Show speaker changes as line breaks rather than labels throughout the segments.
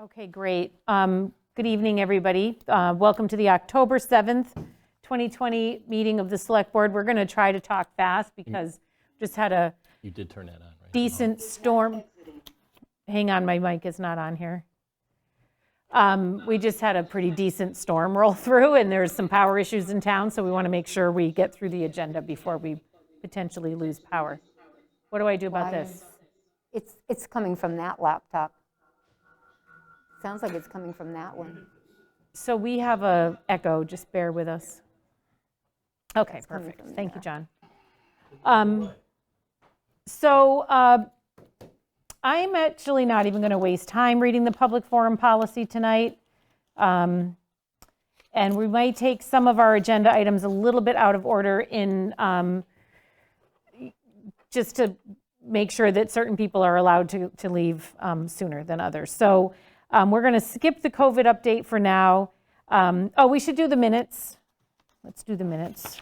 Okay, great. Um, Good evening, everybody. Uh, Welcome to the October 7th, 2020 meeting of the Select Board. We're going to try to talk fast because just had a
You did turn that on, right?
decent storm. Hang on, my mic is not on here. Um, We just had a pretty decent storm roll through, and there's some power issues in town, so we want to make sure we get through the agenda before we potentially lose power. What do I do about
Why
this?
It's, it's coming from that laptop. Sounds like it's coming from that one.
So we have a echo, just bear with us. Okay,
coming
perfect.
from
Thank you, John. Um, So uh, I'm actually not even going to waste time reading the public forum policy tonight. Um, And we might take some of our agenda items a little bit out of order in, um, just to make sure that certain people are allowed to, to leave um, sooner than others. So um, we're going to skip the COVID update for now. Um, Oh, we should do the minutes. Let's do the minutes.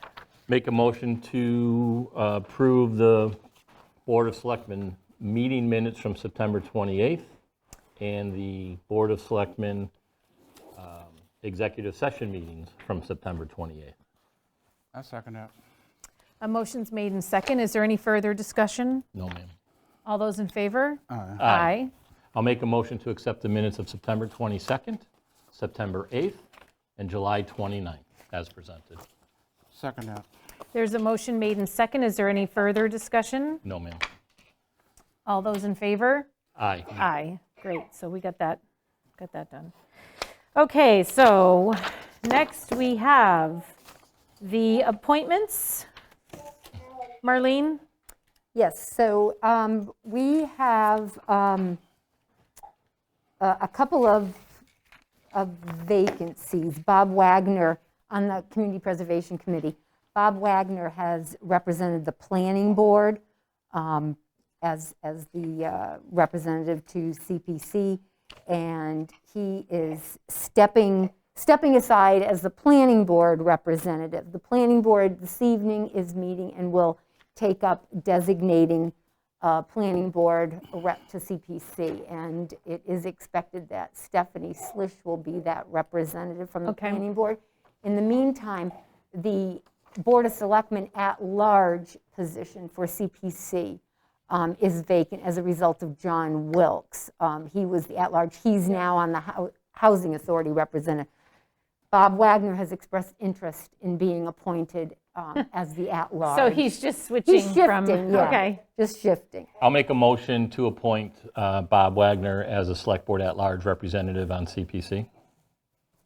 Make a motion to uh, approve the Board of Selectmen meeting minutes from September 28th and the Board of Selectmen um, executive session meetings from September 28th.
I second that.
A motion's made in second. Is there any further discussion?
No, ma'am.
All those in favor?
Aye. I'll make a motion to accept the minutes of September 22nd, September 8th, and July 29th as presented.
Second that.
There's a motion made in second. Is there any further discussion?
No, ma'am.
All those in favor?
Aye.
Aye, great, so we got that, got that done. Okay, so next we have the appointments. Marlene,
Yes, so um, we have um, a a couple of of vacancies. Bob Wagner on the Community Preservation Committee. Bob Wagner has represented the Planning Board um, as as the uh, representative to CPC, and he is stepping stepping aside as the Planning Board representative. The Planning Board this evening is meeting and will take up designating uh, Planning Board rep to CPC, and it is expected that Stephanie Slish will be that representative from the
Okay.
Planning Board. In the meantime, the Board of Selectmen at-large position for CPC um, is vacant as a result of John Wilkes. Um, He was the at-large, he's now on the Hou- Housing Authority representative. Bob Wagner has expressed interest in being appointed um, as the at-large.
so he's just switching
He's
from.
shifting, yeah.
Okay,
Just shifting.
I'll make a motion to appoint uh, Bob Wagner as a Select Board at-large representative on CPC.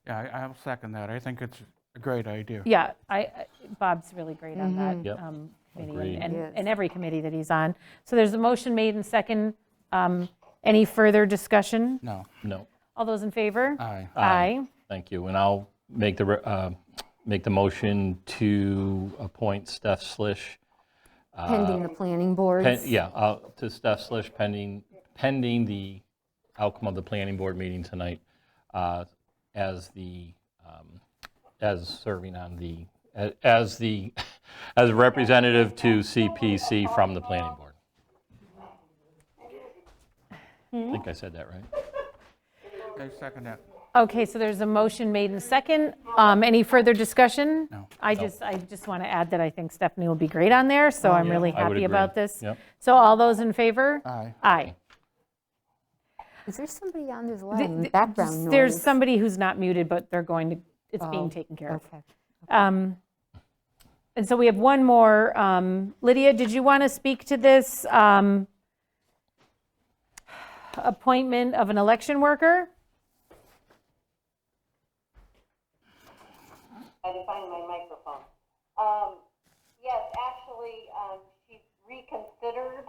Yeah, I- I'll second that. I think it's a great idea.
yeah, I, I- Bob's really great on that.
Yep.
um, committee
Agreed.
and-
He
And,
is.
and every committee that he's on. So there's a motion made and second. Um, Any further discussion?
No,
No,
All those in favor?
aye.
Aye.
thank you. And I'll make the, re- uh, make the motion to appoint Steph Slish,
Pending the planning boards.
pen- yeah, uh, to Steph Slish pending, pending the outcome of the planning board meeting tonight uh, as the, um, as serving on the, as the, as representative to CPC from the planning board.
Hmm?
I think I said that right.
I second that.
Okay, so there's a motion made in second. Um, Any further discussion?
No.
I just, I just want to add that I think Stephanie will be great on there, so I'm
Oh, yeah,
really
I would
happy about
agree.
this.
Yep.
So all those in favor?
Uh,
Aye.
Aye.
Is there somebody on, there's a lot
Th-
of um, background noise. Oh,
There's somebody who's not muted, but they're going to, it's being taken care of.
Okay.
Um, And so we have one more. Um, Lydia, did you want to speak to this um, appointment of an election worker?
I to find my microphone. Um, yes, actually, um, she's reconsidered.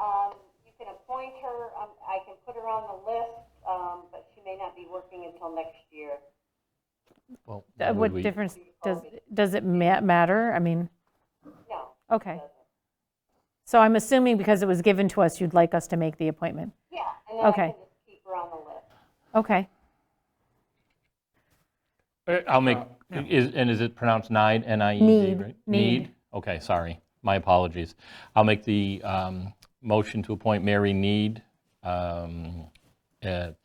Um, you can appoint her, um, I can put her on the list, um, but she may not be working until next year.
Well,
Uh,
would
What
we-
difference, does, does it ma- matter? I mean.
No.
Okay. So I'm assuming because it was given to us, you'd like us to make the appointment?
Yeah, and then I
Okay.
can just keep her on the list.
Okay.
Uh, I'll make, is, and is it pronounced Nide, N-I-E-D,
Need.
right?
Need.
Okay, sorry, my apologies. I'll make the um, motion to appoint Mary Need um, uh,